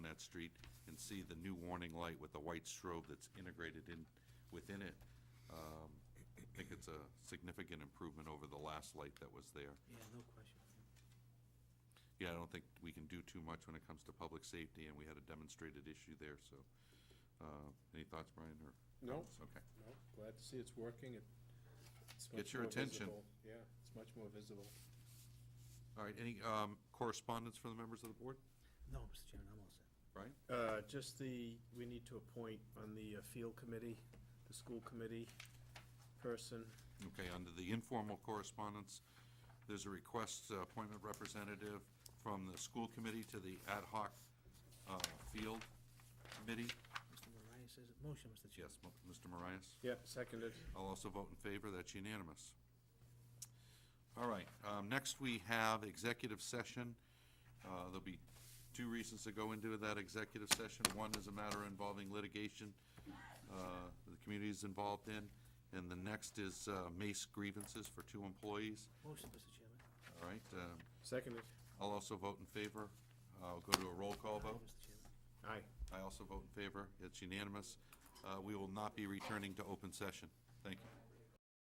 Street and see the new warning light with the white strobe that's integrated in, within it. Um, I think it's a significant improvement over the last light that was there. Yeah, no question. Yeah, I don't think we can do too much when it comes to public safety, and we had a demonstrated issue there, so. uh, Any thoughts, Brian, or? No. comments? Okay. No, glad to see it's working. It- it's Gets much your more attention. visible. Yeah, it's much more visible. All right, any um, correspondence from the members of the board? No, Mr. Chairman, I'm all set. Brian? Uh, Just the, we need to appoint on the uh, field committee, the school committee person. Okay, under the informal correspondence, there's a request, uh, appointment representative from the school committee to the ad hoc uh, field committee. Mr. Marias says, it. motion, Mr. Chairman. Yes, M- Mr. Marias? Yep, seconded. I'll also vote in favor, that's unanimous. All right, um, next we have executive session. Uh, There'll be two reasons to go into that executive session. One is a matter involving litigation uh, the community is involved in, and the next is uh, mace grievances for two employees. Motion, Mr. Chairman. All right, um, Seconded. I'll also vote in favor. I'll go to a roll call Aye, vote. Mr. Chairman. Aye. I also vote in favor, it's unanimous. Uh, We will not be returning to open session. Thank you.